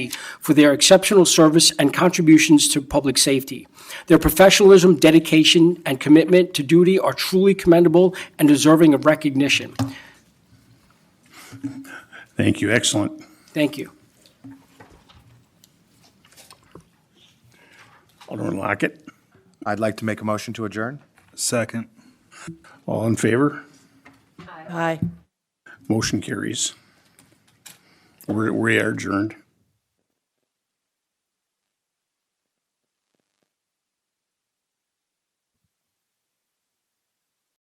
for their exceptional service and contributions to public safety. Their professionalism, dedication, and commitment to duty are truly commendable and deserving of recognition. Thank you, excellent. Thank you. Alderman Lockett, I'd like to make a motion to adjourn. Second. all in favor? Aye. Motion carries. We're- We are adjourned.